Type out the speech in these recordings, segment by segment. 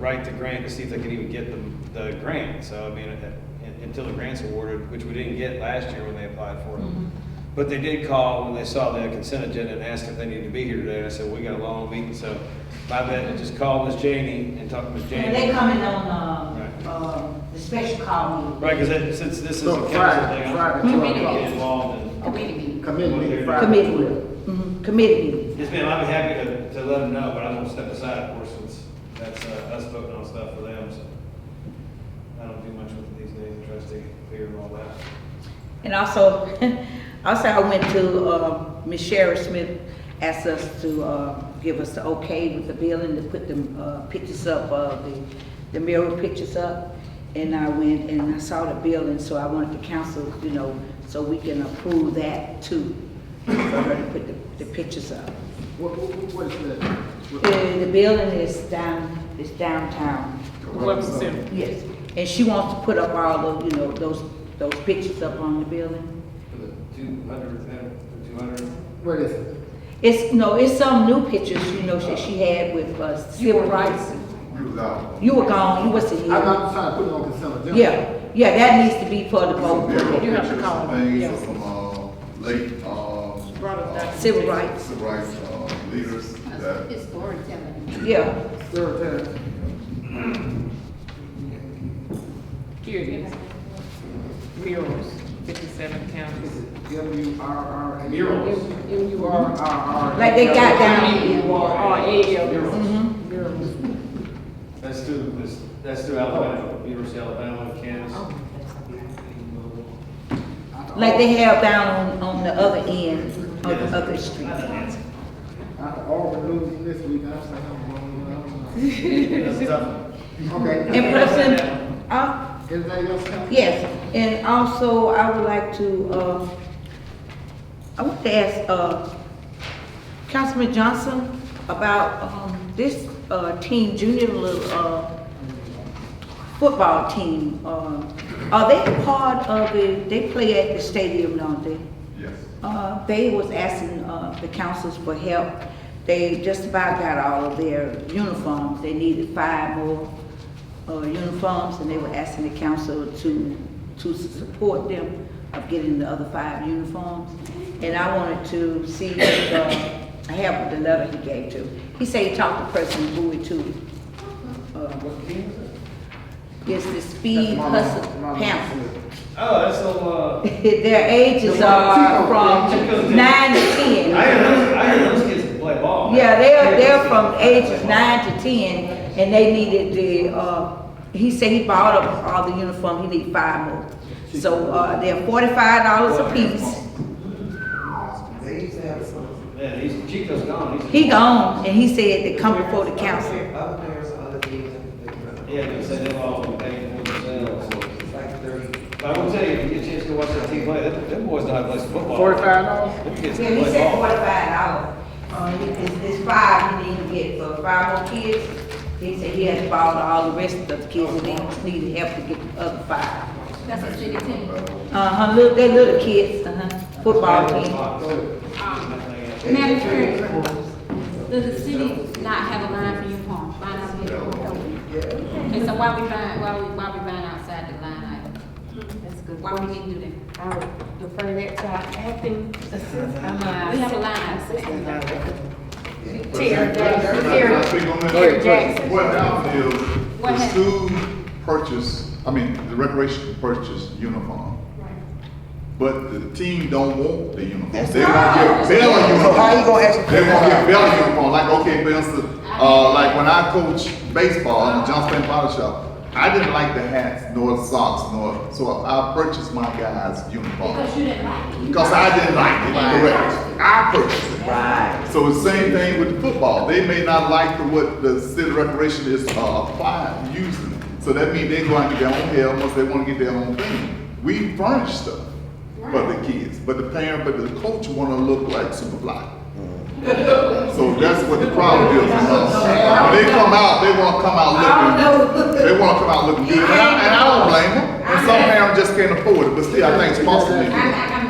write the grant to see if they can even get the, the grant. So, I mean, uh, un- until the grant's awarded, which we didn't get last year when they applied for it. But they did call when they saw the consent agenda and asked if they needed to be here today. And I said, we got a long meeting, so my bet is just call Miss Janie and talk to Miss And they Janie. coming on, uh, uh, the special call meeting. Right, because since this is a No, council thing, Friday, I'm Friday, I'm twelve gonna o'clock. get involved in. Committee meeting. Committee meeting Friday. Committee, Mm-hmm. mhm, committee meeting. Yes, ma'am, I'd be happy to, to let them know, but I'm gonna step aside, of course, since that's, uh, us voting on stuff for them, so. I don't do much with it these days, I try to stay clear of all that. And also, also I went to, uh, Ms. Sherry Smith asked us to, uh, give us the okay with the building, to put the, uh, pictures up, uh, the, the mural pictures up. And I went and I saw the building, so I wanted the council, you know, so we can approve that too, for her to put the, the pictures up. What, what, what is that? What- And the building is down, is downtown. Welcome center. Yes, and she wants to put up all the, you know, those, those pictures up on the building. For the two hundred, the two hundred. What is it? It's, no, it's some new pictures, you know, that she had with, uh, civil rights. You loud. You were gone, you was a I'm year. not trying to put it on consent agenda. Yeah, yeah, that needs to be for the Some vote. mural You have to pictures, call some them, things yes. of some, uh, late, um. Brought up that- Civil rights, Civil rights, uh, leaders that, It's storytelling. yeah. Secretary, Here it is. Murals, fifty-seven counties. W R R A. Murals. M U R R. R R. Like they got down. R A L. Mhm. Murals. That's through, this- that's through Alabama, University of Alabama, Kansas. Oh, Like they have down on, on the other end of the other street. After all the news this week, I was like, I'm wrong, I don't That's a tough one. know. Okay. And person, uh, Anything else, Council? Yes, and also I would like to, uh, I want to ask, uh, Councilman Johnson about, um, this, uh, team, junior, little, uh, football team, uh, are they part of the, they play at the stadium, don't they? yes. Uh, they was asking, uh, the councils for help. They just about got all of their uniforms. They needed five more, uh, uniforms, and they were asking the council to, to support them of getting the other five uniforms. And I wanted to see if, uh, I have the letter he gave to. He said he talked to President Bowie too. Uh, It's the Speed Mama- Hustle Mama Panther. Smith. Oh, that's a, uh, Their ages are from nine to I ten. hear those, I hear those kids play ball. man. Yeah, they're, they're from ages nine to ten, and they needed the, uh, he said he bought up all the uniform, he need five more. So, uh, they're forty-five dollars a piece. Yeah, he's, Chico's gone, he's. He gone, and he said they come before the council. Other parents are other teams that they run. Yeah, they said they've all been paying for themselves. It's like thirty. But I will tell you, if you get a chance to watch that team play, them, them boys don't have place football. Forty-five dollars? Them kids Yeah, can he play said ball. forty-five dollars. Uh, he- it's, it's five he need to get for five more kids. He said he has bought all the rest of the kids, and they just needed help to get the other five. That's a city team. Uh-huh, little, they little kids, uh-huh, football team. Madam Chair, does the city not have a line for uniform? Line out here? Okay, so why we buying, why we, why we buying outside the line item? That's good. Why we didn't do that? I would defer that to our acting assistant. I'm, uh, We have a line assistant. Terry Jackson. Can I- can I speak on that? Terry- Terry Jackson. What happened is, What the happened? school purchased, I mean, the recreation purchased uniform. But the team don't want the uniform. They want their Bell uniform. So how you gonna ask them? They want their Bell uniform, like, okay, for instance, uh, like when I coach baseball at John Stanley Bottle Shop, I didn't like the hats, nor the socks, nor, so I purchased my guys' uniform. Because you didn't like it. Because I didn't like it, correct. I purchased it. Right. So the same thing with football. They may not like the, what the city recreation is uh, applying, using. So that means they're going to get their own help unless they want to get their own thing. We furnish stuff for the kids, but the parent, but the coach want to look like Superfly. So that's what the problem is. with us. When they come out, they want to come out looking, they want to come out looking good. And I, and I don't blame them. And some parents just can't afford it, but still, I think sponsoring. I'm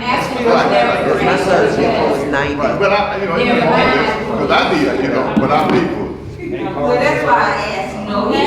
asking. Right, right, right. My son's uniform is Right, ninety. but I, you know, Yeah, but- because I did, you know, but I people. Well, that's why I asked, you know, he